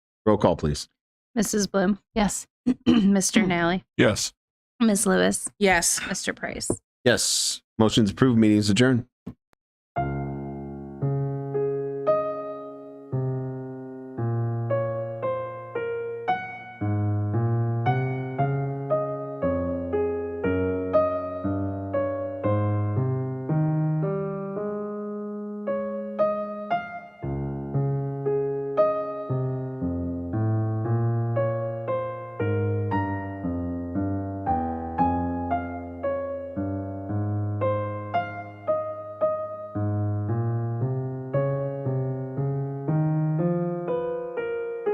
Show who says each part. Speaker 1: Roll call, please.
Speaker 2: Mrs. Bloom? Yes. Mr. Nally?
Speaker 3: Yes.
Speaker 2: Ms. Lewis?
Speaker 4: Yes.
Speaker 2: Mr. Price?
Speaker 1: Yes. Motion's approved. Meeting's adjourned.